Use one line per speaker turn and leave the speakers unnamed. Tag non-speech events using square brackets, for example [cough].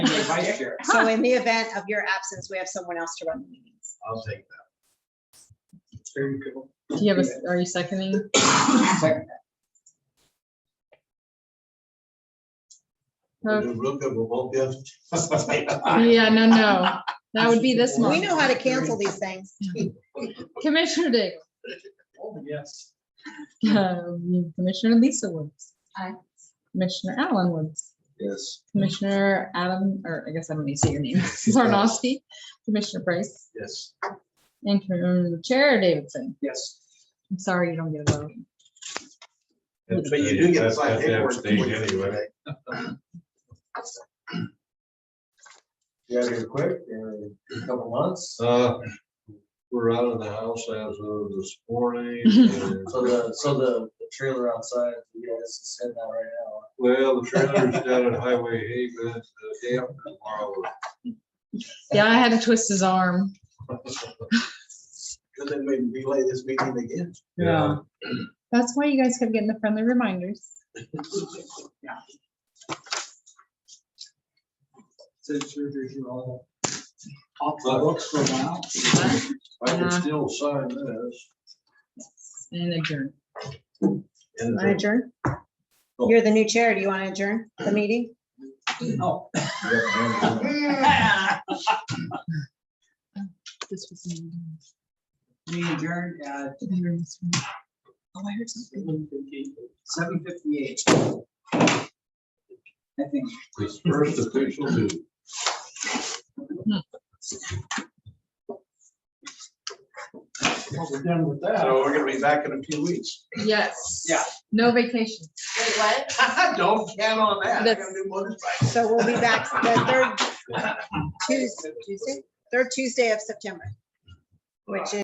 vice chair.
So in the event of your absence, we have someone else to run the meetings.
I'll take that.
Very good.
Do you have a, s- are you seconding?
Second.
We'll do real good. We won't be. [laughs]
Yeah, no, no. That would be this
We
month.
know how to cancel these things.
Commissioner Dick.
Oh, Yes.
Um, Commissioner Lisa Woods.
Aye.
Commissioner Alan Woods.
Yes.
Commissioner Adam, or I guess I don't need to say your name, [laughs] Zarnowski. Commissioner Price
Yes.
and Commissioner Chair Davidson.
Yes.
I'm sorry you don't get a vote.
But you do get a side
That's- that's
paperwork.
abstained anyway.
You out here quick, in a couple months.
Uh, We're out of the house as of this morning. and-
So the, so the the trailer outside, you guys is sitting out right now.
Well, the trailer's down at Highway Haven, the day after uh, tomorrow.
Yeah, I had to twist his arm.
Cause then maybe relay this meeting again.
Yeah.
That's why you guys kept getting the friendly reminders.
So surgeries are all off the books for now.
I can
Uh-huh.
still sign this.
And adjourn.
And
I adjourn.
You're the new chair. Do you want to adjourn the meeting?
Oh.
[laughs]
This was.
We adjourned at
Oh, I heard something.
seven fifty-eight. I think.
This first official duty.
Well, we're done with
So we're gonna be back in a few weeks.
Yes.
Yeah.
No vacation.
Wait, what?
[laughs] Don't count on that. I gotta
That's-
do motorcycle.
So we'll be back the third Tuesday, Tuesday, third Tuesday of September, which is.